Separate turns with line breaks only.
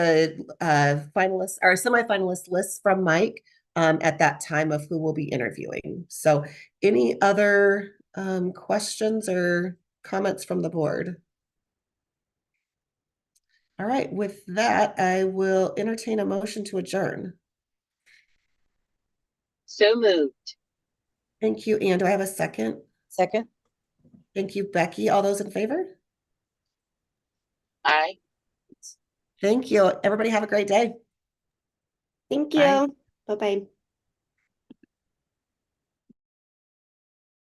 the uh, finalist or semifinalist lists from Mike um, at that time of who will be interviewing. So, any other um, questions or comments from the board? All right, with that, I will entertain a motion to adjourn.
So moved.
Thank you, Anne. Do I have a second?
Second?
Thank you, Becky. All those in favor?
Aye.
Thank you. Everybody have a great day.
Thank
Bye.
you. Bye bye.